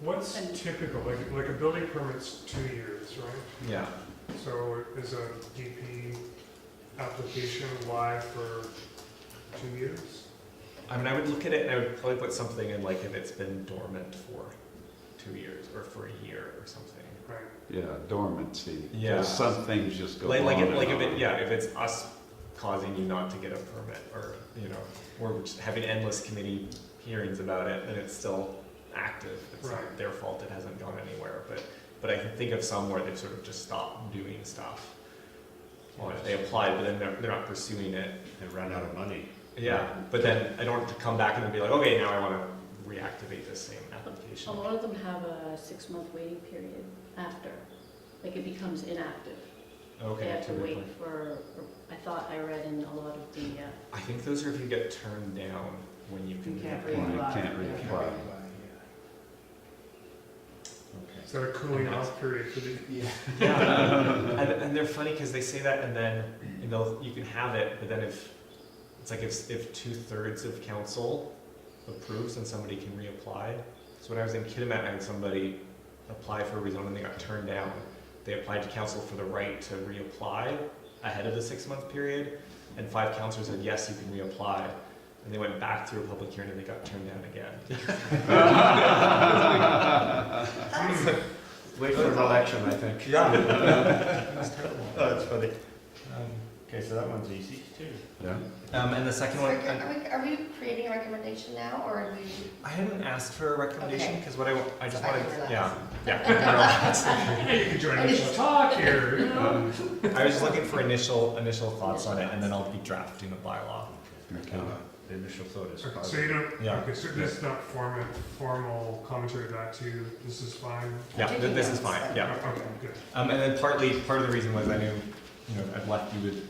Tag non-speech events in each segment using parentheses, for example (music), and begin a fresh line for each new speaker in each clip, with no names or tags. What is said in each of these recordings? What's
And-
typical, like, like a building permit's two years, right?
Yeah,
So is a DP application live for two years?
I mean, I would look at it and I would probably put something in like if it's been dormant for two years or for a year or something.
Right,
Yeah, dormancy. 'Cause
Yeah.
Some things just go on
Like, like,
and
if, like if
on.
it, yeah, if it's us causing you not to get a permit or, you know, or we're just having endless committee hearings about it and it's still active. It's
Right.
not their fault, it hasn't gone anywhere, but, but I can think of some where they've sort of just stopped doing stuff. Or if they applied, but then they're, they're not pursuing it,
They ran out of
(laughs)
money.
Yeah, but then I don't have to come back and then be like, okay, now I want to reactivate this same
A
application.
lot of them have a six-month waiting period after, like it becomes inactive. They
Okay,
have to
to
wait
reapply.
for, I thought I read in a lot of the, uh,
I think those are if you get turned down when you can.
You can't
Well,
reapply.
you can't
Yeah.
reapply.
is that a cooling off period for the,
Yeah, (laughs) and, and they're funny because they say that, and then and they'll you can have it, but then if it's like if if two thirds of council approves, then somebody can reapply. So when I was in Kitimat, I had somebody apply for a rezone and they got turned down. They applied to council for the right to reapply ahead of the six month period, and five councilors said yes, you can reapply. And they went back through a public hearing and they got turned down again.
Wait for an election, I think.
(laughs) Yeah. That's terrible.
Oh, that's funny.
Um,
Okay, so that one's easy too.
Yeah.
um, and the second one, I-
Are we, are we creating a recommendation now, or are we?
I hadn't asked for a recommendation
Okay.
because what I, wa- I just
Sorry
wanted,
for that.
yeah,
(laughs)
(laughs)
(laughs) yeah.
hey, you can join us and talk here.
Um,
No, I was just looking for initial, initial thoughts on it and then I'll be drafting the bylaw.
Okay.
Uh, The initial thought is
Okay, So you
positive.
don't,
Yeah.
okay, so this is not formal, formal commentary back to you, this is fine?
Yeah, th- this is fine, yeah.
Okay, good.
Um, and then partly, part of the reason was I knew, you know, I'd left you with,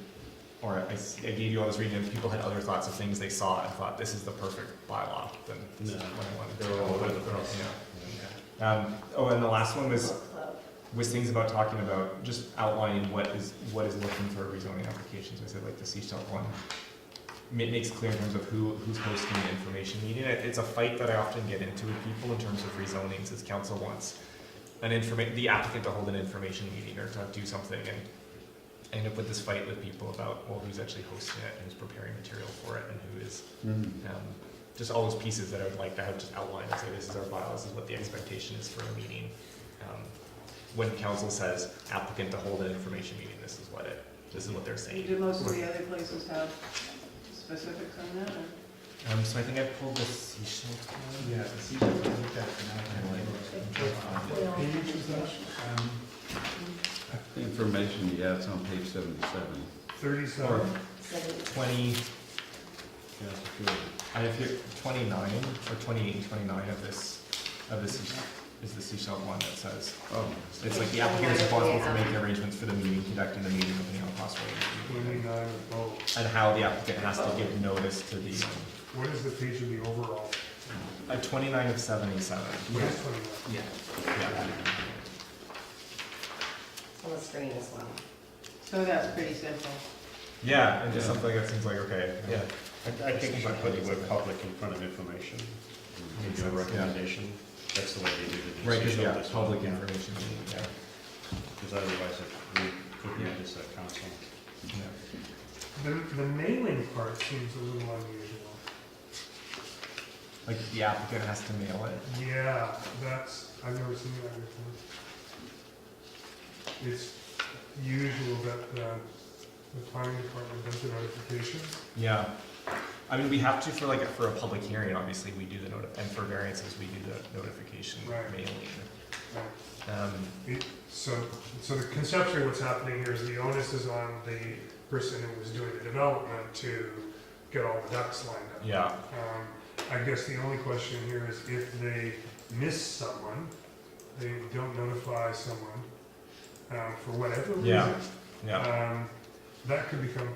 or I, s- I gave you all this reading and people had other thoughts of things they saw and thought, this is the perfect bylaw, then this is
No.
what I wanted to.
They're all over the
Yeah.
place.
Um, oh, and the last one was
book club.
was things about talking about just outlining what is what is looking for a rezoning application. So I said like the seashell one. It makes clear in terms of who who's hosting the information meeting. It- It's a fight that I often get into with people in terms of rezonings. Is council wants an informa- the applicant to hold an information meeting or to do something, and I end up with this fight with people about well who's actually hosting it and who's preparing material for it and who is
Mm.
um, just all those pieces that I would like to have just outlined and say this is our bylaw, this is what the expectation is for a meeting. Um, when council says applicant to hold an information meeting, this is what it, this is what they're saying.
Do most of the other places have specifics on that? or-
Um, so I think I pulled the seashell.
Yeah, the sequel, I think that's another
They all-
one. Page was that? Um,
Information, yeah, it's on page seventy-seven.
Or
Thirty-seven,
twenty,
Yeah, it's a few.
I have here twenty-nine or twenty-eight and twenty-nine of this, of this is- is the seashell one that says,
Oh,
it's like the applicant is responsible for making arrangements for the meeting, conducting the meeting, opening all possible.
twenty-nine, oh,
And how the applicant has to give notice to the, um,
what is the page of the overall?
A twenty-nine of seventy-seven.
What is twenty-nine?
Yeah. Yeah.
On the screen as well.
So that's pretty simple.
Yeah, and just
Yeah.
something that seems like, okay.
Yeah, I, I think if I put the word public in front of information,
Makes
maybe a
sense, yeah.
recommendation, that's the way they did it. in
Right, cause
Cecil,
yeah,
that's what-
public
yeah.
information, yeah,
Because otherwise it we could
Yeah.
read this at council.
yeah.
The, the mailing part seems a little unusual.
Like the applicant has to mail it.
Yeah, that's, I've never seen that before. It's usual that the, the planning department does the notification.
Yeah. I mean, we have to for like, a- for a public hearing, obviously, we do the noti- and for variances, we do the notification
Right.
mailing.
Right.
Um,
It- So, so the conceptually what's happening here is the onus is on the person who was doing the development to get all the ducks lined up.
yeah,
Um, I guess the only question here is if they miss someone, they don't notify someone, um, for whatever
Yeah.
reason,
yeah.
um, that could become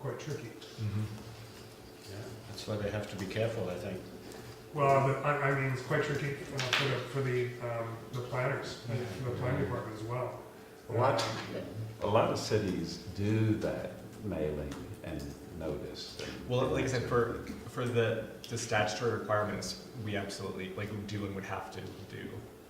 quite tricky.
Mhm.
Yeah, that's why they have to be careful, I think.
Well, the- I, I mean, it's quite tricky uh, for the, for the, um, the planners, and for the planning department as well.
What?
Um,
a lot of cities do that mailing and notice. and-
Well, like I said, for, for the, the statutory requirements, we absolutely, like, we do and would have to do.